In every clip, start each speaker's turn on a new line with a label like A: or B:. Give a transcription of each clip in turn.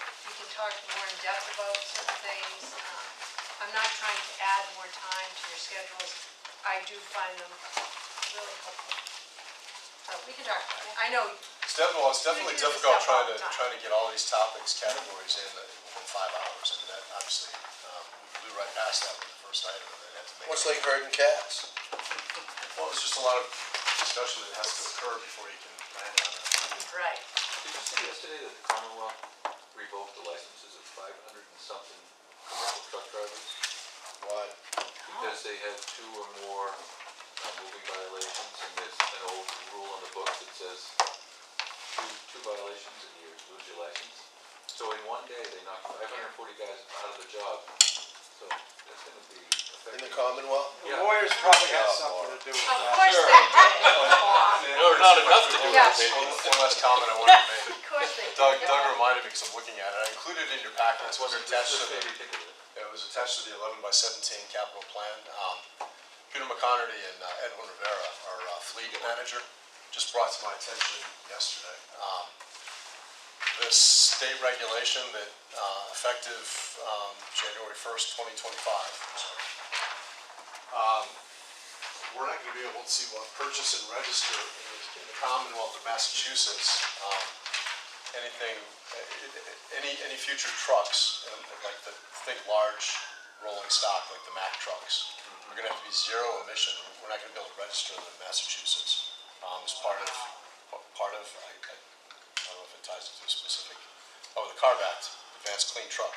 A: talked more in depth about certain things. Um, I'm not trying to add more time to your schedules. I do find them really helpful. So Oh, we can talk about it. I know,
B: It's definitely, well, it's definitely
A: We do this stuff
B: difficult
A: all
B: trying to,
A: the time.
B: trying to get all these topics, categories in uh, within five hours, and that obviously, um, we blew right past that with the first item, and then had to make.
C: Much like herding cats.
B: Well, it's just a lot of discussion that has to occur before you can land on it.
A: right,
D: Did you see yesterday that the Commonwealth revoked the licenses of five hundred and something commercial truck drivers?
B: Why?
D: Because they had two or more uh, moving violations, and there's an old rule on the book that says two, two violations and you lose your license. So in one day, they knocked five hundred and forty guys out of the job, so that's gonna
C: In
D: be
C: the
D: affecting.
C: Commonwealth?
D: Yeah.
E: The lawyers probably had something to do with
A: of
E: that.
A: course they did,
B: No,
D: not enough to do
A: Yeah.
B: One one last comment I wanted to make.
A: of course they did.
B: Doug, Doug reminded me, because I'm looking at it, I included it in your packet, it's what's attached to
D: This is
B: the,
D: gonna be ridiculous.
B: it was attached to the eleven by seventeen capital plan. Um, Peter McConerty and uh, Edwin Rivera, our uh, fleet manager, just brought to my attention yesterday. um, This state regulation that uh, effective um, January first, twenty twenty-five, Um, we're not gonna be able to uh, purchase and register in the- in the Commonwealth of Massachusetts, um, anything, uh, any, any future trucks, um, like the, think large rolling stock, like the Mack trucks, are gonna have to be zero emission, we're not gonna be able to register them in Massachusetts, um, as part of, part of, I, I I don't know if it ties into a specific, oh, the CARB Act, Advanced Clean Truck.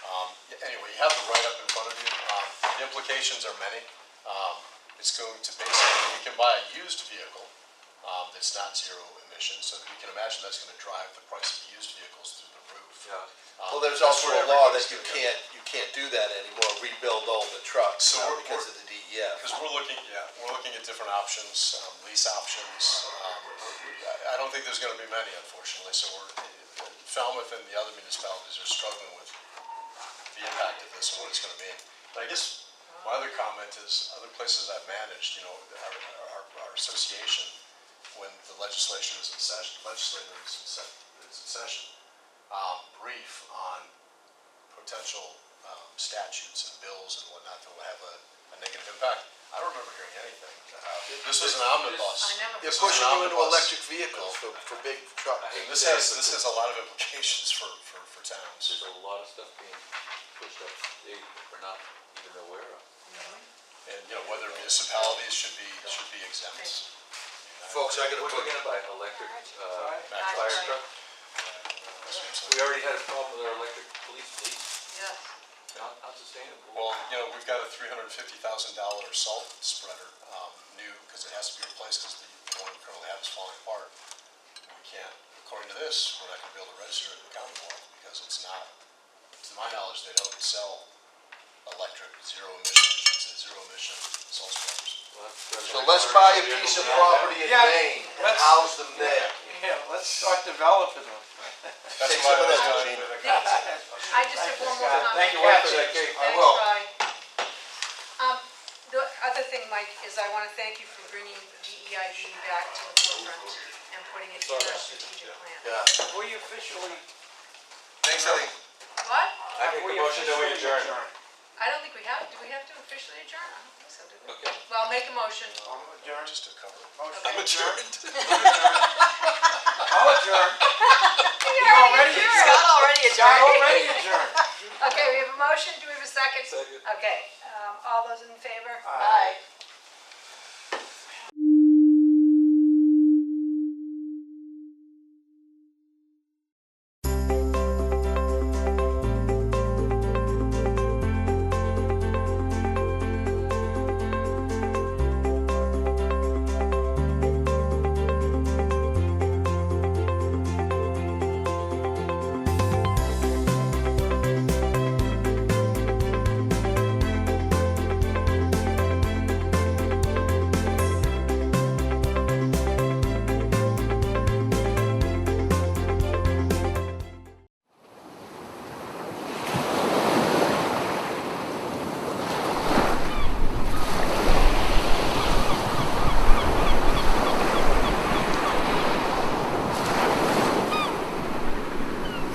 B: Um, yeah, Anyway, you have the write-up in front of you, um, the implications are many. Um, It's going to basically, you can buy a used vehicle um, that's not zero emission, so you can imagine that's gonna drive the price of used vehicles through the roof.
D: Yeah.
B: Um,
C: Well, there's
B: that's
C: also
B: where
C: a law
B: everybody's
C: that you
B: gonna go.
C: can't, you can't do that anymore, rebuild older trucks
B: So
C: now
B: we're-
C: because
B: we're-
C: of the E DEF.
B: Because we're looking, yeah, we're looking at different options, um, lease options. um, I- I don't think there's gonna be many unfortunately, so we're, Falmouth and the other municipalities are struggling with the impact of this and what it's gonna mean. But I guess my other comment is, other places I've managed, you know, our, our, our association, when the legislation is in session, legislator is in se- is in session, um, brief on potential um, statutes and bills and whatnot that will have a, a negative impact. I don't remember hearing anything. Uh, This was an
A: I
B: omnibus.
A: never.
C: They're
B: This was
C: pushing
B: an
C: you into
B: omnibus.
C: electric vehicles for, for big trucks.
B: And This has, this has a lot of implications for, for, for towns.
D: There's a lot of stuff being pushed up, that we're not even aware of.
B: And, you know, whether municipalities should be, should be exempt.
C: Folks, I gotta
D: What are
C: put,
D: we gonna buy, electric, uh,
E: Right?
B: Back
D: fire
B: trucks.
D: truck?
B: So-
D: We already had a problem with our electric police fleet,
A: Yes,
D: not, not sustainable.
B: Well, you know, we've got a three hundred and fifty thousand dollar salt spreader, um, new, because it has to be replaced, because the the one we currently have is falling apart. We can't, according to this, we're not gonna be able to register it in the Commonwealth, because it's not, to my knowledge, they don't sell electric, zero emission, I should say, zero emission salt spreaders.
C: so let's buy a piece of property in
E: Yeah,
C: Maine and
E: let's-
C: house them there.
E: Yeah, let's start developing them.
B: That's
C: Take
B: why I
C: some of
B: was
C: that,
B: gonna-
C: Gene.
A: I just have one more comment.
E: Thank you,
D: Thanks,
E: Watson.
D: Jake.
A: I
C: will.
A: Um, the other thing, Mike, is I wanna thank you for bringing DEIB back to the forefront and putting it in our strategic plan.
C: Yeah.
E: We officially,
C: Thanks, Ellie.
A: What?
D: I make
E: we
D: a motion that we
E: officially
D: adjourn.
E: adjourn.
A: I don't think we have, do we have to officially adjourn? I don't think so, do we?
D: Okay.
A: Well, I'll make a motion.
E: I'm adjourned.
B: Just to cover. it.
E: Motion
A: I'm
E: adjourned. I'll adjourn.
A: We
E: already adjourned.
A: Scott already
E: John already adjourned.
A: Okay, we have a motion, do we have a second?
D: Second.
A: Okay, um, all those in favor?
E: Aye.